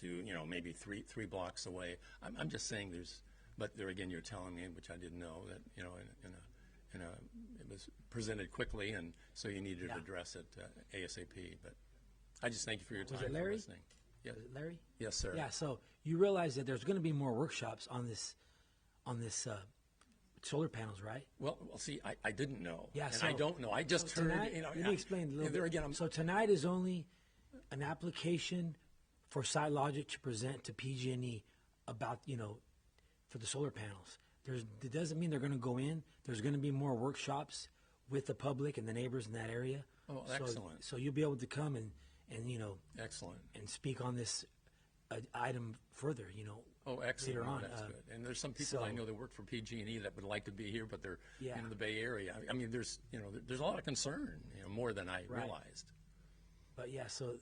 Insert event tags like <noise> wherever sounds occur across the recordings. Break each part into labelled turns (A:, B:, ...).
A: to, you know, maybe three, three blocks away. I'm, I'm just saying there's, but there again, you're telling me, which I didn't know, that, you know, in, in a, in a, it was presented quickly, and so you needed to
B: Yeah.
A: address it uh, ASAP, but I just thank you for your time
B: it
A: for
B: Larry?
A: listening. Yeah.
B: Larry?
A: Yes, sir.
B: Yeah, so you realize that there's going to be more workshops on this, on this uh, solar panels, right?
A: Well, well, see, I, I didn't know.
B: Yeah,
A: And
B: so-
A: I don't know. I just
B: So
A: heard,
B: tonight-
A: you know.
B: Let
A: I-
B: me explain a little
A: There
B: bit.
A: again, I'm,
B: So tonight is only an application for SiteLogic to present to PG&E E about, you know, for the solar panels. There's, it doesn't mean they're going to go in. There's going to be more workshops with the public and the neighbors in that area.
A: Oh,
B: So-
A: excellent.
B: So you'll be able to come and, and, you know,
A: excellent.
B: and speak on this uh, item further, you know.
A: Oh, excellent.
B: Later
A: Oh,
B: on.
A: That's
B: uh,
A: good. And there's some people I
B: so-
A: know that work for PG&E E that would like to be here, but they're
B: Yeah.
A: in the Bay Area. I, I mean, there's, you know, there- there's a lot of concern, you know, more than I
B: Right.
A: realized.
B: But yeah, so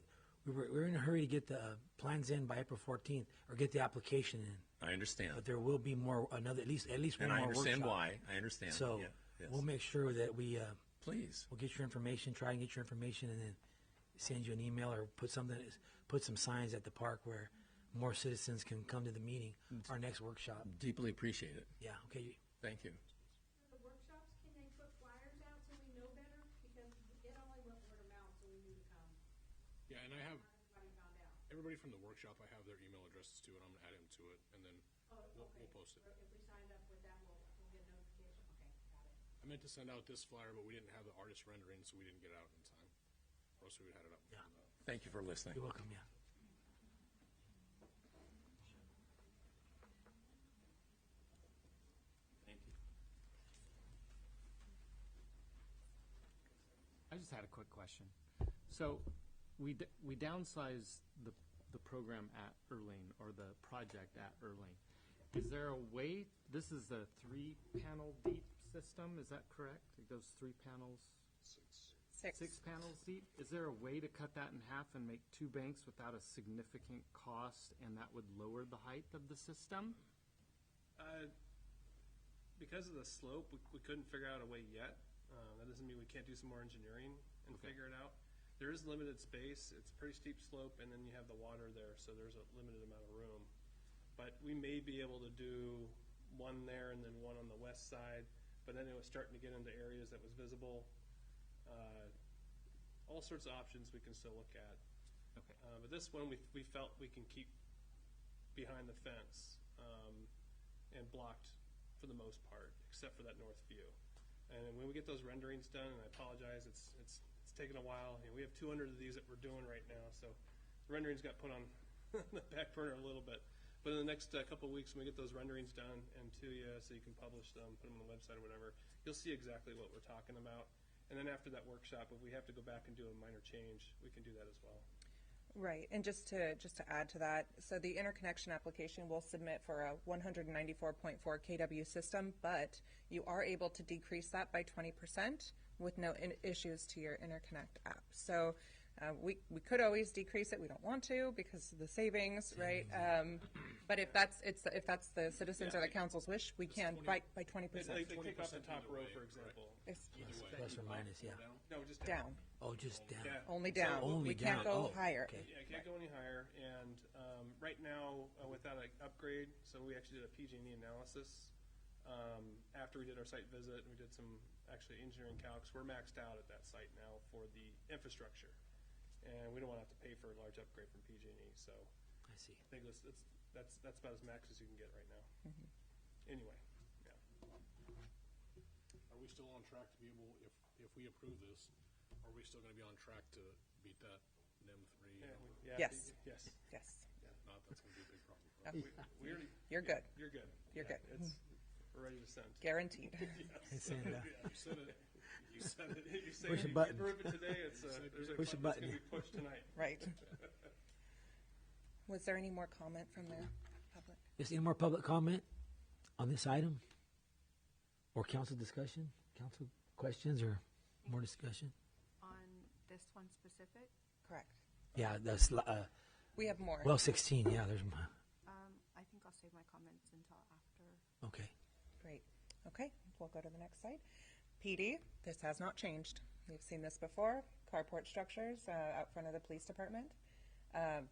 B: we were, we were in a hurry to get the uh, plans in by April 14th or get the application in.
A: I understand.
B: But there will be more, another, at least, at least one
A: and
B: more
A: I understand
B: workshop.
A: why. I understand.
B: So
A: Yeah. Yes.
B: we'll make sure that we, uh,
A: Please.
B: we'll get your information, try and get your information and then send you an email or put something, put some signs at the park where more citizens can come to the meeting,
A: Mm.
B: our next workshop.
A: Deeply appreciate it.
B: Yeah, okay.
A: Thank you.
C: The workshops, can they put flyers out so we know better? Because it only went word of mouth, so we knew to come.
D: Yeah, and I have,
C: Everybody found out.
D: everybody from the workshop, I have their email addresses too, and I'm gonna add them to it, and then we'll, we'll post it.
C: Or Oh, If we signed up with that, we'll, we'll get notification. Okay, got it.
D: I meant to send out this flyer, but we didn't have the artist rendering, so we didn't get it out in time. Or else we would have had it up.
B: Yeah.
A: Thank you for listening.
B: You're welcome, yeah.
E: I just had a quick question. So we, d- we downsized the, the program at Erling or the project at Erling. Is there a way, this is a three panel deep system, is that correct? It goes three panels? Six panels deep? Is there a way to cut that in half and make two banks without a significant cost and that would lower the height of the system?
F: Uh, Because of the slope, we, we couldn't figure out a way yet. Uh, that doesn't mean we can't do some more engineering and figure it out. There is limited space. It's a pretty steep slope, and then you have the water there, so there's a limited amount of room. But we may be able to do one there and then one on the west side. But then it was starting to get into areas that was visible. Uh, all sorts of options we can still look at.
E: Okay.
F: Uh, but this one, we, we felt we can keep behind the fence um, and blocked for the most part, except for that north view. And when we get those renderings done, and I apologize, it's it's it's taken a while. You know, we have 200 of these that we're doing right now, so the renderings got put on <laughs> the back burner a little bit. But in the next uh, couple of weeks, when we get those renderings done and to you, so you can publish them, put them on the website or whatever, you'll see exactly what we're talking about. And then after that workshop, if we have to go back and do a minor change, we can do that as well.
G: Right, and just to, just to add to that, so the interconnection application will submit for a 194.4 KW system, but you are able to decrease that by 20% with no in- issues to your interconnect app. So uh, we, we could always decrease it, we don't want to because of the savings, right? Um, But if that's, it's, if that's the citizens or the council's wish, we can by, by
F: Like,
G: 20%
F: they kick off the
D: 20% either
F: top row,
D: way,
F: for
D: correct.
F: example.
G: It's
B: Plus or minus, yeah.
F: No, just
G: down,
B: Oh, just down.
F: Yeah.
G: only
F: So
G: down.
B: Only
G: We can't
B: down. Oh,
G: go higher.
B: okay.
F: Yeah, it can't go any higher, and um, right now, uh, without an upgrade, so we actually did a PG&E E analysis um, after we did our site visit, and we did some actually engineering calcs. We're maxed out at that site now for the infrastructure, and we don't want to have to pay for a large upgrade from PG&E. E, So I
B: I see.
F: think that's that's that's, that's about as max as you can get right now.
G: Mm-hmm.
F: Anyway, yeah.
D: Are we still on track to be able, if, if we approve this, are we still gonna be on track to beat that NEM three?
F: yeah,
D: number?
F: we- yeah,
G: Yes.
F: Yes.
G: Yes,
D: If Not, that's gonna be a big problem for us.
F: We, we already,
G: you're good,
F: you're good.
G: You're
F: Yeah,
G: good. Mm-hmm.
F: It's, we're ready to send.
G: guaranteed.
B: <laughs> It's in,
F: <laughs>
B: uh,
D: Yeah, you said it.
F: You said it. You said
B: Push a
F: it. You
B: button.
F: approve it today. It's uh there's a
B: Push a
F: button, that's
B: button.
F: gonna be pushed tonight.
G: Right. Was there any more comment from the public?
B: Is any more public comment on this item? Or council discussion? Council questions or more discussion?
H: on this one specific.
G: Correct.
B: Yeah, that's, uh,
G: We have more.
B: well, sixteen, yeah, there's, my-
H: Um, I think I'll save my comments until after.
B: okay.
G: Great. Okay, we'll go to the next slide. PD, this has not changed. We've seen this before. Carport structures uh, out front of the police department. Uh,